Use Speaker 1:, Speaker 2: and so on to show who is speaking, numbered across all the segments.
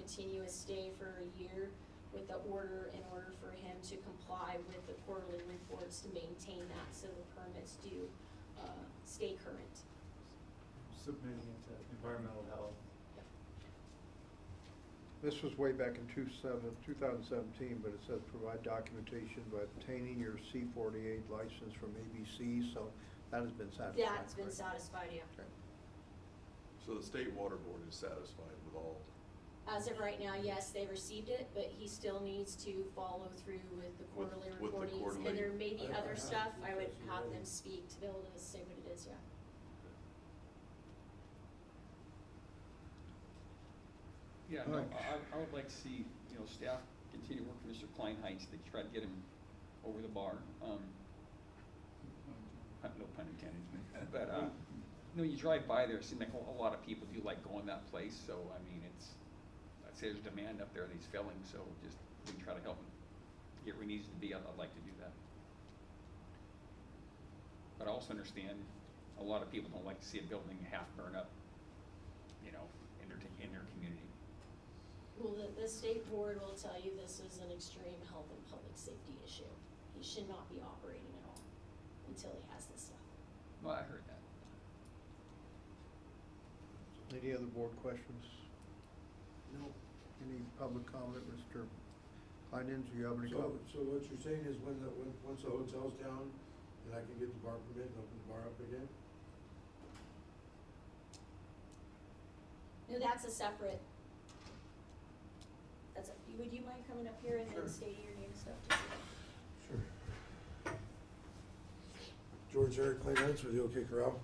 Speaker 1: continue his stay for a year with the order in order for him to comply with the quarterly reports to maintain that so the permits do, uh, stay current.
Speaker 2: submitting it to environmental health.
Speaker 3: This was way back in two seven, two thousand seventeen, but it says provide documentation by obtaining your C forty-eight license from ABC, so that has been satisfied.
Speaker 1: That's been
Speaker 3: correct?
Speaker 1: satisfied, yeah.
Speaker 3: Okay.
Speaker 4: So the state water board is satisfied with all,
Speaker 1: As of right now, yes, they received it, but he still needs to follow through with the
Speaker 4: With-
Speaker 1: quarterly
Speaker 4: with the
Speaker 1: reportings.
Speaker 4: quarterly-
Speaker 1: And there may be
Speaker 5: I- I
Speaker 1: other
Speaker 5: have
Speaker 1: stuff, I would
Speaker 5: details
Speaker 1: have
Speaker 4: uh,
Speaker 5: already.
Speaker 1: them speak to be able to say what it is, yeah.
Speaker 6: Yeah, no,
Speaker 3: Alright.
Speaker 6: I, I would like to see, you know, staff continue working with Mr. Klein Heights, they tried to get him over the bar, um,
Speaker 2: Uh,
Speaker 6: pun- no pun intended, but, uh, no, you drive by there, it seems like a, a lot of people do like going that place, so, I mean, it's, I'd say there's demand up there that he's filling, so just, we try to help him get where he needs to be, I'd, I'd like to do that. But I also understand, a lot of people don't like to see a building half burn up, you know, in their, in their community.
Speaker 1: Well, the, the state board will tell you this is an extreme health and public safety issue. He should not be operating at all until he has this stuff.
Speaker 6: Well, I heard that.
Speaker 3: Any other board questions?
Speaker 5: No.
Speaker 3: Any public comment, Mr. Kleinens, do you have any
Speaker 5: So,
Speaker 3: comments?
Speaker 5: so what you're saying is when the, when, once the hotel's down, and I can get the bar permit and open the bar up again?
Speaker 1: No, that's a separate, that's, a- would you mind coming up here and then
Speaker 5: Sure.
Speaker 1: stating your name and stuff? just so-
Speaker 5: Sure. George Eric Clay Lance with the OK Corral.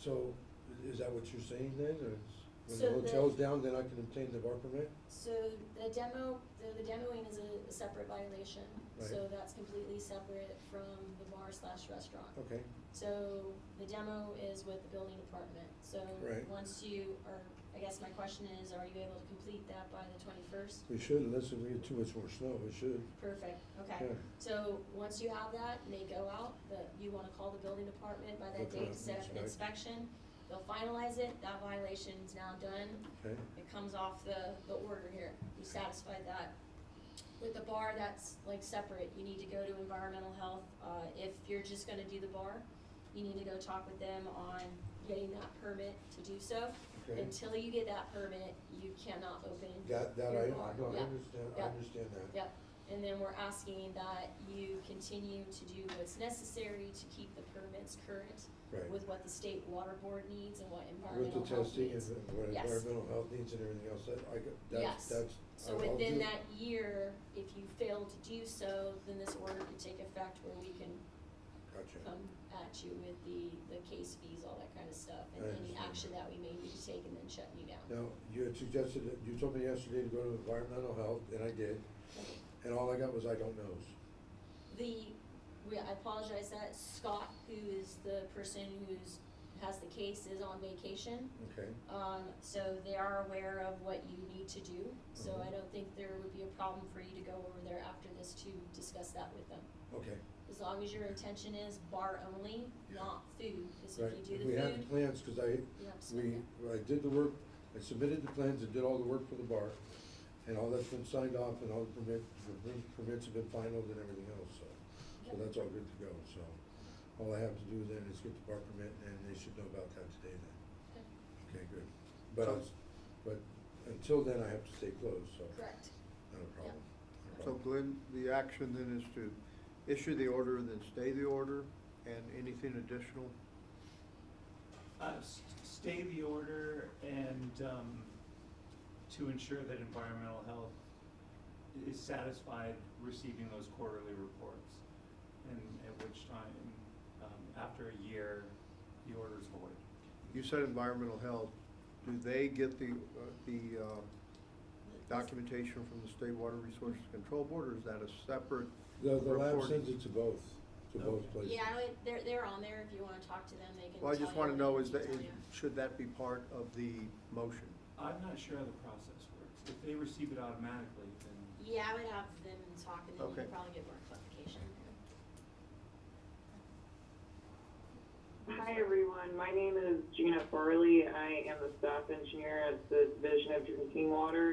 Speaker 5: So, i- is that what you're saying then, or is, when
Speaker 1: So the-
Speaker 5: the hotel's down, then I can obtain the bar permit?
Speaker 1: So the demo, the, the demoing is a, a separate violation, so
Speaker 5: Right.
Speaker 1: that's completely separate from the bar slash restaurant.
Speaker 5: Okay,
Speaker 1: So the demo is with the building department, so
Speaker 5: Right.
Speaker 1: once you are, I guess my question is, are you able to complete that by the twenty-first?
Speaker 5: we should, unless we get too much more snow, we should.
Speaker 1: Perfect, okay.
Speaker 5: Yeah.
Speaker 1: So once you have that, and they go out, the, you wanna call the building department by that
Speaker 5: Okay.
Speaker 1: date, set up an
Speaker 5: Inspect.
Speaker 1: inspection, they'll finalize it, that violation's now done,
Speaker 5: Okay,
Speaker 1: it comes off the, the order here, you satisfied that. With the bar, that's like separate, you need to go to environmental health, uh, if you're just gonna do the bar, you need to go talk with them on getting that permit to do so.
Speaker 5: Okay.
Speaker 1: Until you get that permit, you cannot open your bar.
Speaker 5: that, that I, I no, I
Speaker 1: Yeah.
Speaker 5: understand, I
Speaker 1: Yeah.
Speaker 5: understand that.
Speaker 1: Yep, and then we're asking that you continue to do what's necessary to keep the permits current
Speaker 5: Right.
Speaker 1: with what the state water board needs and what
Speaker 5: With
Speaker 1: environmental
Speaker 5: the
Speaker 1: health
Speaker 5: testing and
Speaker 1: needs.
Speaker 5: the- what
Speaker 1: Yes.
Speaker 5: environmental health needs and everything else, that, I, got- that's,
Speaker 1: Yes.
Speaker 5: that's.
Speaker 1: So
Speaker 5: I'll- I'll
Speaker 1: within
Speaker 5: do-
Speaker 1: that year, if you fail to do so, then this order could take effect where we can
Speaker 5: Gotcha,
Speaker 1: come at you with the, the case fees, all that kind of stuff, and
Speaker 5: I
Speaker 1: any
Speaker 5: understand.
Speaker 1: action that we may need to take and then shutting you down.
Speaker 5: now, you had suggested, that- you told me yesterday to go to environmental health, and I did, and all I got was I don't knows.
Speaker 1: The, we, I apologize that Scott, who is the person who's, has the case, is on vacation.
Speaker 5: Okay,
Speaker 1: Um, so they are aware of what you need to do, so I
Speaker 5: Mhm.
Speaker 1: don't think there would be a problem for you to go over there after this to discuss that with them.
Speaker 5: okay.
Speaker 1: As long as your intention is bar only,
Speaker 5: Yeah.
Speaker 1: not food, because
Speaker 5: Right.
Speaker 1: if you do
Speaker 5: We
Speaker 1: the
Speaker 5: had
Speaker 1: food,
Speaker 5: plans, cause I,
Speaker 1: you have to spend
Speaker 5: we,
Speaker 1: it.
Speaker 5: I did the work, I submitted the plans and did all the work for the bar, and all that's been signed off, and all the permit, the perm- permits have been finalized and everything else, so. So
Speaker 1: Yep.
Speaker 5: that's all good to go, so, all I have to do then is get the bar permit, and they should know about that today then.
Speaker 1: Okay.
Speaker 5: Okay, good. But, I'll s- but until then, I have to stay closed, so.
Speaker 1: Correct,
Speaker 5: Not a problem. Not a
Speaker 3: So
Speaker 5: problem.
Speaker 3: Glenn, the action then is to issue the order and then stay the order, and anything additional?
Speaker 2: Uh, s- stay the order and, um, to ensure that environmental health is satisfied receiving those quarterly reports. And at which time, um, after a year, the order is void.
Speaker 3: You said environmental health, do they get the, uh, the um, documentation from the State Water Resources Control Board, or is that a separate?
Speaker 5: The, the lab
Speaker 3: report?
Speaker 5: sends it to both, to both
Speaker 2: Okay.
Speaker 5: places.
Speaker 1: yeah, I would- they're, they're on there, if you wanna talk to them, they can tell you.
Speaker 3: Well, I just want to know, is
Speaker 1: they
Speaker 3: that,
Speaker 1: can
Speaker 3: is-
Speaker 1: tell you.
Speaker 3: should that be part of the motion?
Speaker 2: I'm not sure how the process works. If they receive it automatically, then
Speaker 1: Yeah, I would have them talk, and then you
Speaker 3: Okay.
Speaker 1: could probably get more clarification.
Speaker 7: Hi, everyone. My name is Gina Farley. I am the staff engineer at the Division of Drinking Water